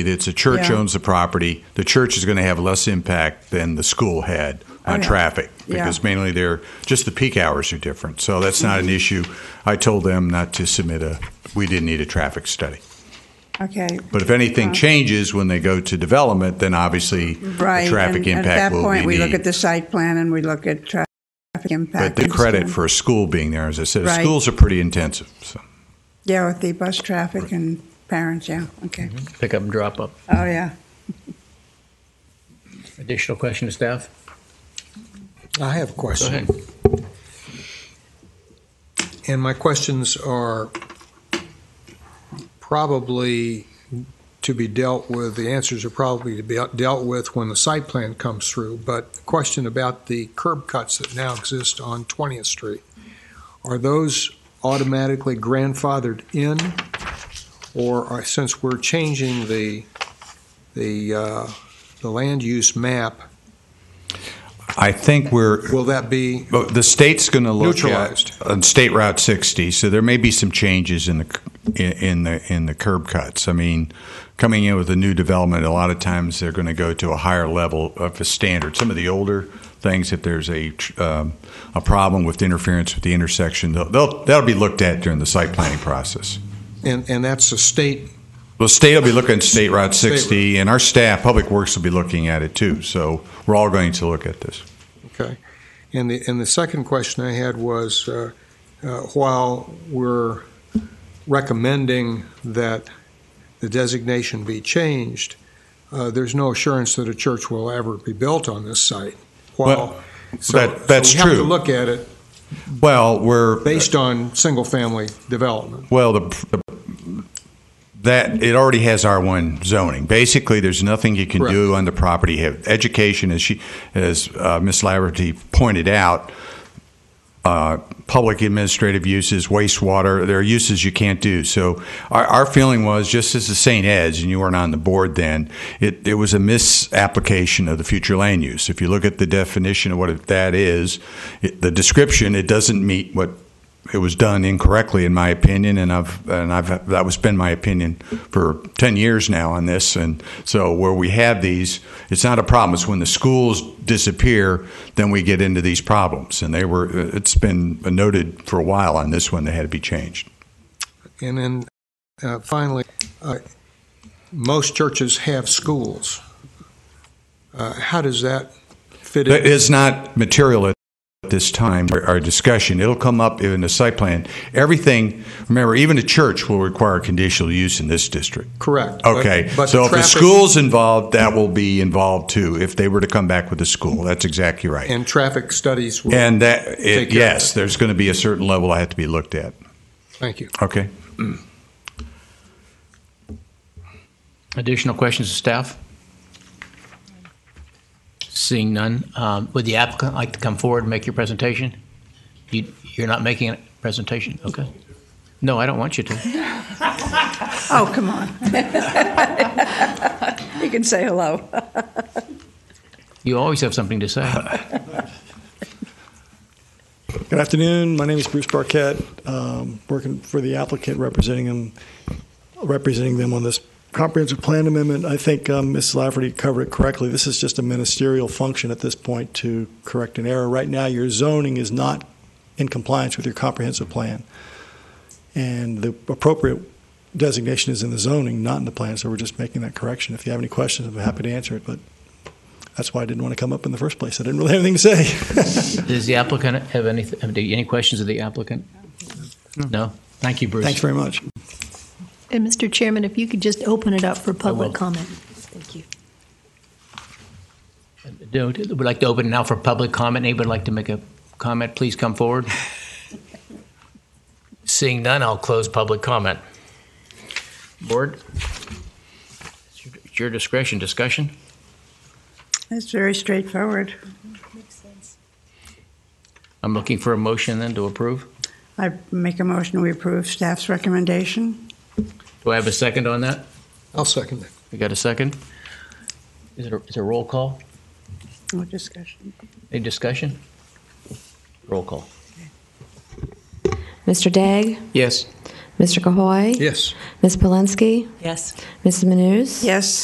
It's a church Yeah. owns the property. The church is going to have less impact than the school had on Oh, yeah. traffic Yeah. because mainly they're just the peak hours are different. So that's not an issue. I told them not to submit a. We didn't need a traffic study. Okay. But if anything changes when they go to development, then obviously Right. the traffic and impact At that will point, be we look needed. at the site plan and we look at traffic but impact. the and credit stuff. for a school being there, as I said, Right. schools are pretty intensive. So. Yeah, with the bus traffic and parents, yeah, okay. Mm-hmm. Pick up and drop up. Oh, yeah. Additional question to staff? I have a Go question, ahead. and my questions are probably to be dealt with, the answers are probably to be dealt with when the site plan comes through, but the question about the curb cuts that now exist on 20th Street, are those automatically grandfathered in? Or are, since we're changing the, the, uh, the land use map, I think we're will that be But The state's going to look Neutralized. at on State Route 60, so there may be some changes in the in, in the in the curb cuts. I mean, coming in with a new development, a lot of times they're going to go to a higher level of a standard. Some of the older things, if there's a tr- um, a problem with interference with the intersection, they'll, they'll that'll be looked at during the site planning process. And, and that's a state, The state will be looking at State Route State 60, and our staff, Public Works, will be looking at it too. So we're all going to look at this. okay. And the, and the second question I had was, uh, uh, while we're recommending that the designation be changed, uh, there's no assurance that a church will ever be built on this site. While, so that- so that's We have true. to look at it Well, we're based on single-family development. Well, the, the that it already has R one zoning. Basically, there's nothing you can do on the property. Have education, as she, as uh, Ms. Laverty pointed out, uh, public administrative uses, wastewater. There are uses you can't do. So our, our feeling was just as the St. Ed's, and you weren't on the board then. It it was a misapplication of the future land use. If you look at the definition of what it- that is, it, the description, it doesn't meet what it was done incorrectly, in my opinion, and I've and I've that was been my opinion for ten years now on this. And so where we have these, it's not a problem. It's when the schools disappear, then we get into these problems. And they were it's been noted for a while on this one. They had to be changed. And then uh, finally, uh, most churches have schools. Uh, How does that fit in? That is not material at this time, our- our discussion. It'll come up in the site plan. Everything, remember, even a church will require conditional use in this district. Correct. But- Okay, but so if the traffic- school's involved, that will be involved too, if they were to come back with a school. That's exactly right. And traffic studies will, And that, Take care it- of yes, it. there's going to be a certain level I have to be looked at. thank you. Okay? Additional questions to staff? Seeing none, um, would the applicant like to come forward and make your presentation? You, you're not making a presentation, okay? No, I don't want you to. Oh, come on. You can say hello. You always have something to say. Good afternoon. My name is Bruce Barquette, um, working for the applicant, representing them, representing them on this comprehensive plan amendment. I think um, Ms. Lafferty covered it correctly. This is just a ministerial function at this point to correct an error. Right now, your zoning is not in compliance with your comprehensive plan, and the appropriate designation is in the zoning, not in the plan. So we're just making that correction. If you have any questions, I'm happy to answer it. But that's why I didn't want to come up in the first place. I didn't really have anything to say. Does the applicant have any, have any questions of the applicant? No? Thank you, Bruce. Thanks very much. And Mr. Chairman, if you could just open it up for will. public comment. Thank you. Don't- Would like to open now for public comment. Anybody like to make a comment, please come forward. Seeing none, I'll close public comment. Board? It's your- It's your discretion, discussion? That's very straightforward. I'm looking for a motion then to approve. I make a motion, we approve staff's recommendation. Do I have a second on that? I'll second that. We got a second? Is it a, is it a roll call? No discussion. Any discussion? Roll call. Mr. Dagg, Yes. Mr. Cahoy? Yes. Ms. Polanski? Yes. Mrs. Manus? Yes.